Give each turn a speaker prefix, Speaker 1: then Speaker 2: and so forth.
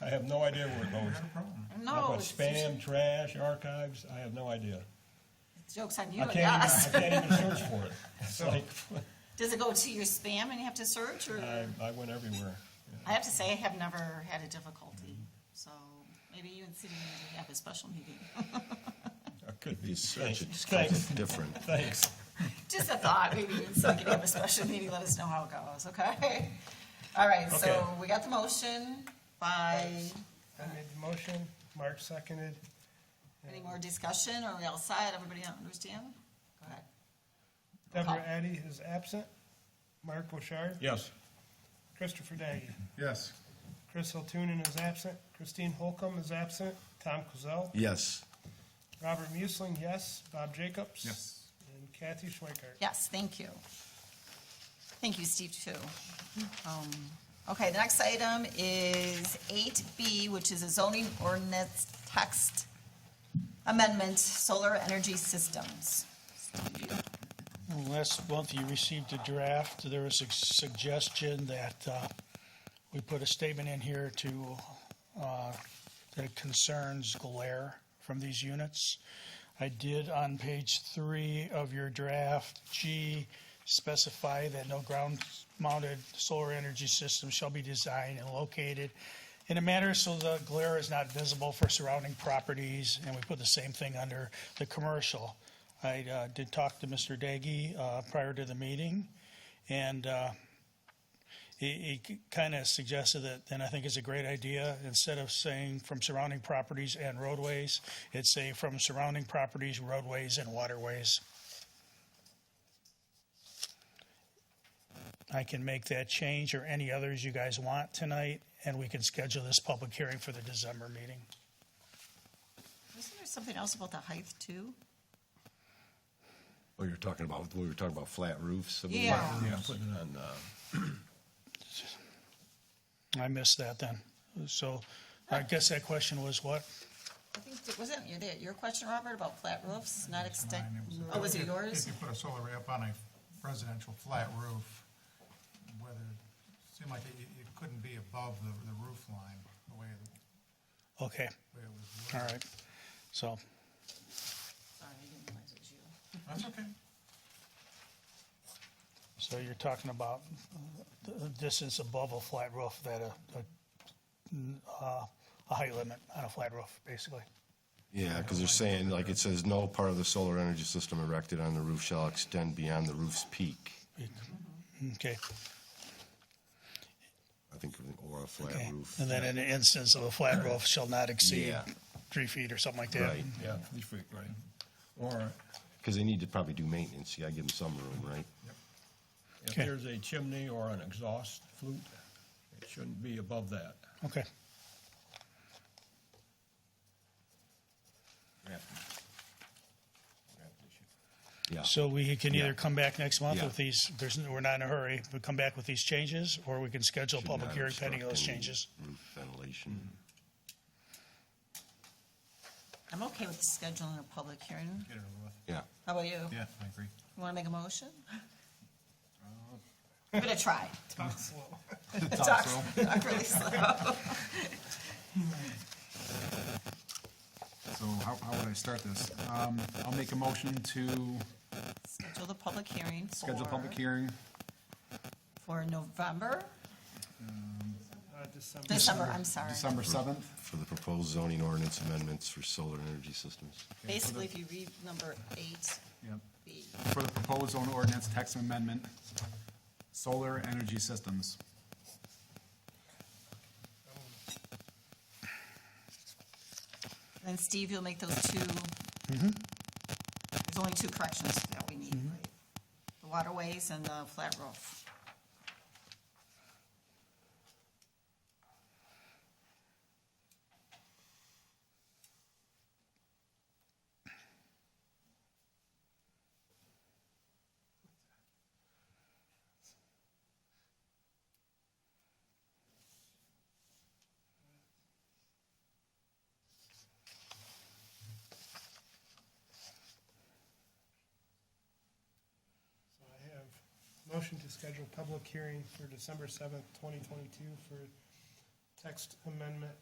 Speaker 1: I have no idea where it
Speaker 2: Never
Speaker 1: goes.
Speaker 2: had a problem.
Speaker 1: I've
Speaker 3: No,
Speaker 1: got
Speaker 3: Oh, it's-
Speaker 1: spam, trash, archives, I have no idea.
Speaker 3: joke's on you
Speaker 1: I
Speaker 3: and
Speaker 1: can't even, I
Speaker 3: us.
Speaker 1: can't even search for it. It's
Speaker 2: So-
Speaker 1: like,
Speaker 3: Does it go to your spam and you have to search, or?
Speaker 1: I, I went everywhere.
Speaker 3: I have to say, I have never had a difficulty, so maybe you and city manager have a special meeting.
Speaker 1: I could be.
Speaker 4: He's such a,
Speaker 1: Thanks.
Speaker 4: something different.
Speaker 1: Thanks.
Speaker 3: Just a thought, maybe you and city can have a special meeting, let us know how it goes, okay? All right, so
Speaker 1: Okay.
Speaker 3: we got the motion by,
Speaker 5: I made the motion, Mark seconded.
Speaker 3: any more discussion, or we all set, everybody understand? Go ahead.
Speaker 5: Deborah Addy is absent. Mark Bouchard,
Speaker 1: Yes.
Speaker 5: Christopher Daggy.
Speaker 2: Yes,
Speaker 5: Chris Hiltunen is absent. Christine Holcomb is absent. Tom Kozel.
Speaker 4: Yes,
Speaker 5: Robert Muesling, yes. Bob Jacobs.
Speaker 2: Yes.
Speaker 5: And Kathy Schweikart.
Speaker 3: Yes, thank you. Thank you, Steve, too. Um, Okay, the next item is eight B, which is a zoning ordinance text amendment, solar energy systems.
Speaker 6: Last month, you received a draft. There was a suggestion that uh, we put a statement in here to, uh, that concerns glare from these units. I did on page three of your draft, G, specify that no ground-mounted solar energy system shall be designed and located in a manner so the glare is not visible for surrounding properties, and we put the same thing under the commercial. I uh, did talk to Mr. Daggy uh, prior to the meeting, and uh, he, he kind of suggested that, and I think it's a great idea, instead of saying from surrounding properties and roadways, it's say from surrounding properties, roadways, and waterways. I can make that change or any others you guys want tonight, and we can schedule this public hearing for the December meeting.
Speaker 3: Isn't there something else about the height, too?
Speaker 4: well, Oh, you're talking about, we were talking about flat roofs. and we-
Speaker 3: Yeah.
Speaker 1: Yeah, putting it on, uh,
Speaker 6: I missed that then. So I guess that question was what?
Speaker 3: I think, that- wasn't it your- your question, Robert, about flat roofs, not extend, oh, was it
Speaker 2: If
Speaker 3: yours?
Speaker 2: you put a solar array up on a residential flat roof, whether, it seemed like it, it couldn't be above the, the roof line, the way, the
Speaker 6: Okay,
Speaker 2: way it was.
Speaker 6: all right. So
Speaker 3: Sorry, I didn't realize it was you.
Speaker 2: That's okay.
Speaker 6: So you're talking about uh, the distance above a flat roof that a, a, uh, a height limit on a flat roof, basically.
Speaker 4: Yeah, because they're saying, like, it says, no part of the solar energy system erected on the roof shall extend beyond the roof's peak.
Speaker 6: Okay,
Speaker 4: I think, or a flat
Speaker 6: okay.
Speaker 4: roof.
Speaker 6: And then in the instance of a flat roof shall not exceed
Speaker 4: Yeah.
Speaker 6: three feet or something like that.
Speaker 4: Right.
Speaker 1: yeah, three feet, right. Or
Speaker 4: Because they need to probably do maintenance, you gotta give them some room, right?
Speaker 1: if
Speaker 6: Okay.
Speaker 1: there's a chimney or an exhaust flute, it shouldn't be above that.
Speaker 6: Okay,
Speaker 4: Yeah.
Speaker 6: so we can
Speaker 4: Yeah.
Speaker 6: either come back next month
Speaker 4: Yeah.
Speaker 6: with these, there's, we're not in a hurry, we come back with these changes, or we can schedule a
Speaker 4: Should
Speaker 6: public
Speaker 4: not
Speaker 6: hearing pending
Speaker 4: obstruct
Speaker 6: those
Speaker 4: any
Speaker 6: changes. Mm-hmm.
Speaker 4: roof Ventilation.
Speaker 3: I'm okay with scheduling a public hearing.
Speaker 2: Get it over with.
Speaker 4: Yeah.
Speaker 3: How about you?
Speaker 2: Yeah, I agree.
Speaker 3: You want to make a motion? I'm gonna try.
Speaker 5: Talk slow.
Speaker 3: Talk talk really slow.
Speaker 7: So how, how would I start this? Um, I'll make a motion to
Speaker 3: Schedule the public hearing for.
Speaker 7: schedule a public hearing,
Speaker 3: For November,
Speaker 5: Uh, December.
Speaker 3: December, I'm sorry.
Speaker 7: December seventh.
Speaker 4: For the proposed zoning ordinance amendments for solar energy systems.
Speaker 3: Basically, if you read number eight
Speaker 7: Yep.
Speaker 3: B.
Speaker 7: For the proposed zone ordinance text amendment, solar energy systems.
Speaker 3: Then Steve, you'll make those two.
Speaker 7: Mm-hmm.
Speaker 3: There's only two corrections that we need, right? The waterways and the flat roof.
Speaker 5: So I have motion to schedule public hearing for December seventh, twenty twenty-two for text amendment